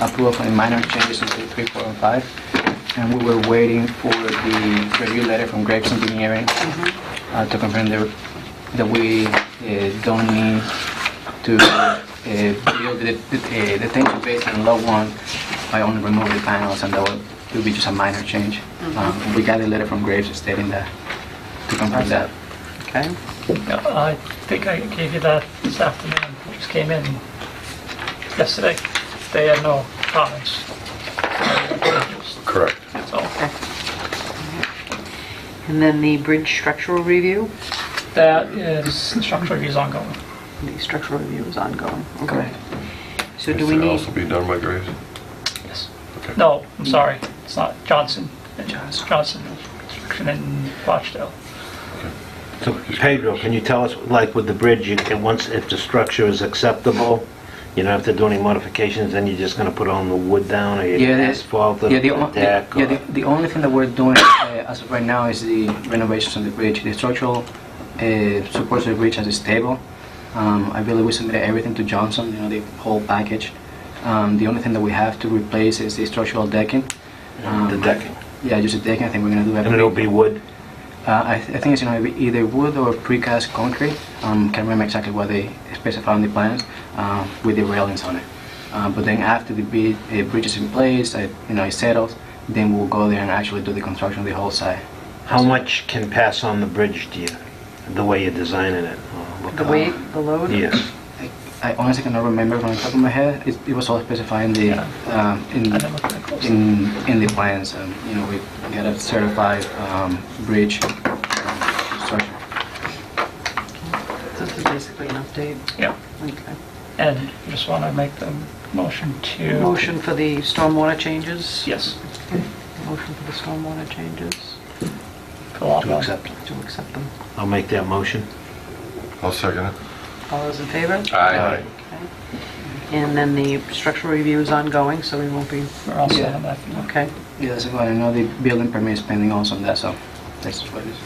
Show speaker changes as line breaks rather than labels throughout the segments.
approval of any minor changes in three, three, four, and five. And we were waiting for the review letter from Graves Engineering uh, to confirm that that we uh, don't need to uh, build the the- uh, detention basin in lot one by only removing the panels, and that would it would be just a minor change. Um, We got a letter from Graves stating that, to confirm that.
Okay.
I think I gave you that this afternoon, It just came in yesterday. They had no comments.
Correct.
So
And then the bridge structural review?
that is, the structure is ongoing.
The structural review is ongoing. Okay.
Correct.
So do
Should
we
it
need,
also be done by Graves?
Yes.
Okay.
No, I'm sorry, it's not Johnson. It's Johnson Construction in Rochdale.
So Pedro, can you tell us, like with the bridge, you- and once, if the structure is acceptable, you don't have to do any modifications, then you're just gonna put on the wood down or you
Yeah, the-
asphalt
Yeah,
the
the, on-
the deck?
yeah,
or-
the, the only thing that we're doing uh, as of right now is the renovations on the bridge. The structural uh, supports the bridge as is stable. Um, I believe we submitted everything to Johnson, you know, the whole package. Um, the only thing that we have to replace is the structural decking.
The
Um,
decking?
Yeah, just the decking. I think we're gonna do that.
And it'll be wood?
Uh, I, th- I think it's you know either wood or precast concrete. Um, can't remember exactly what they specify on the plans um, with the railings on it. Um, but then after the bid, uh, bridge is in place, uh, you know, it settles, then we'll go there and actually do the construction of the whole site.
How much can pass on the bridge, do you, the way you're designing it? or what
the
color?
weight, the load?
Yes.
I, I honestly cannot remember from the top of my head. It, it was all specified in the um, in
I never looked that close.
in in the plans. Um, you know, we got a certified um, bridge um, construction.
This is basically an update.
Yeah.
Okay.
And just want to make the motion to...
Motion for the stormwater changes?
Yes.
Motion for the stormwater changes,
for lot
To
one.
accept.
to accept them.
I'll make that motion.
I'll second it.
All those in favor?
Aye.
And then the structural review is ongoing, so we won't be,
We're all set
Yeah.
on that. for now.
okay.
Yeah, that's why I know the building permit is pending also on that, so that's what it is.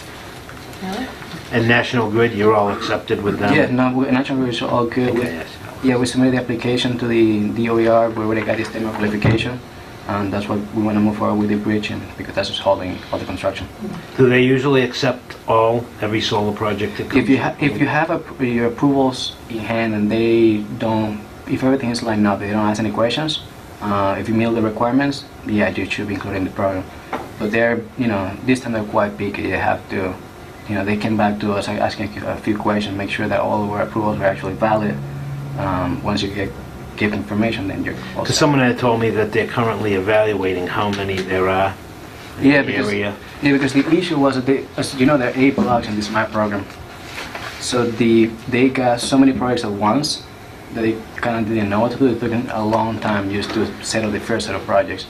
And National Grid, you're all accepted with them?
Yeah, no, we- National Grid is all good.
Okay,
We-
yes.
Yeah, we submitted the application to the DOER, we already got the statement of qualification, and that's what we want to move forward with the bridge, and because that's what's holding all the construction.
Do they usually accept all, every solar project that comes?
If you, ha- if you have appro- your approvals in hand and they don't, if everything is lined up, they don't ask any questions, uh, if you meet all the requirements, yeah, you should be included in the program. But they're, you know, this time they're quite picky, they have to, you know, they came back to us like, asking a few questions, make sure that all of our approvals are actually valid. Um, Once you get, give information, then you're all
Because
set.
someone had told me that they're currently evaluating how many there are in
Yeah,
the
because,
area.
yeah, because the issue was that they, as you know, there are eight blocks in this map program. So the they got so many projects at once that they kind of didn't know what to do. It took them a long time just to settle the first set of projects.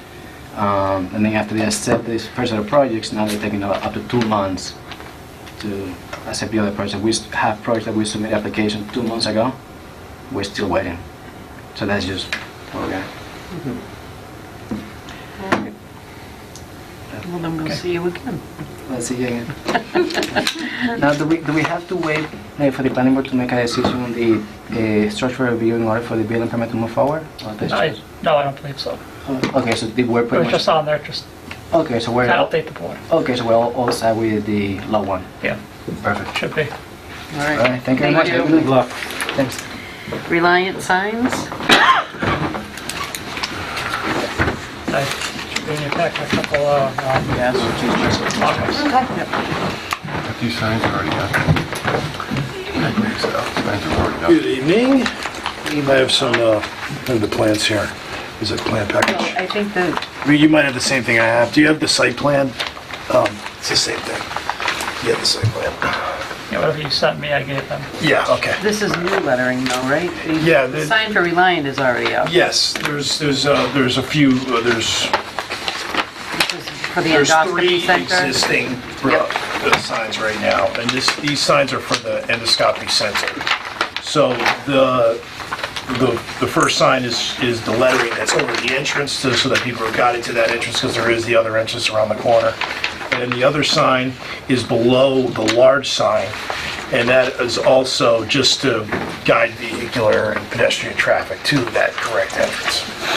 Um, and then after they accept this first set of projects, now they're taking up up to two months to accept the other projects. We s- have projects that we submitted application two months ago. We're still waiting. So that's just what we got.
Well, then we'll
Okay.
see you again.
Let's see again. Now, do we, do we have to wait uh, for the planning board to make a decision on the uh, structural review in order for the building permit to move forward? Or that's
I-
just-
No, I don't believe so.
oh, Okay, so the- we're
It was
pretty
just
much,
on there, just
okay, so we're,
to update the board.
okay, so we're all all set with the law one.
Yeah,
Perfect.
should be.
All
All right,
right.
thank you very much.
Thank
Have a
Good
good-
luck.
Thanks.
Reliant signs?
I should be in your pack a couple of um,
Yes.
mock-ups.
But These signs are already up. Signs are already
Good evening. You might have some, uh, of the plans here. Is it plan package?
I think the,
I mean, You might have the same thing I have. Do you have the site plan? Um, It's the same thing. You have the site plan?
Yeah, whatever you sent me, I gave them.
Yeah, okay.
this is new lettering though, right? The
Yeah,
The
the-
sign for Reliant is already up.
Yes, there's, there's, uh, there's a few, uh, there's,
This is For the
there's three
endoscopy center?
existing uh, uh, signs right now. And this, these signs are for the endoscopy center. So the, the, the first sign is, is the lettering that's over the entrance to- so that people are guided to that entrance because there is the other entrance around the corner. And then the other sign is below the large sign. And that is also just to guide vehicular and pedestrian traffic to that correct entrance.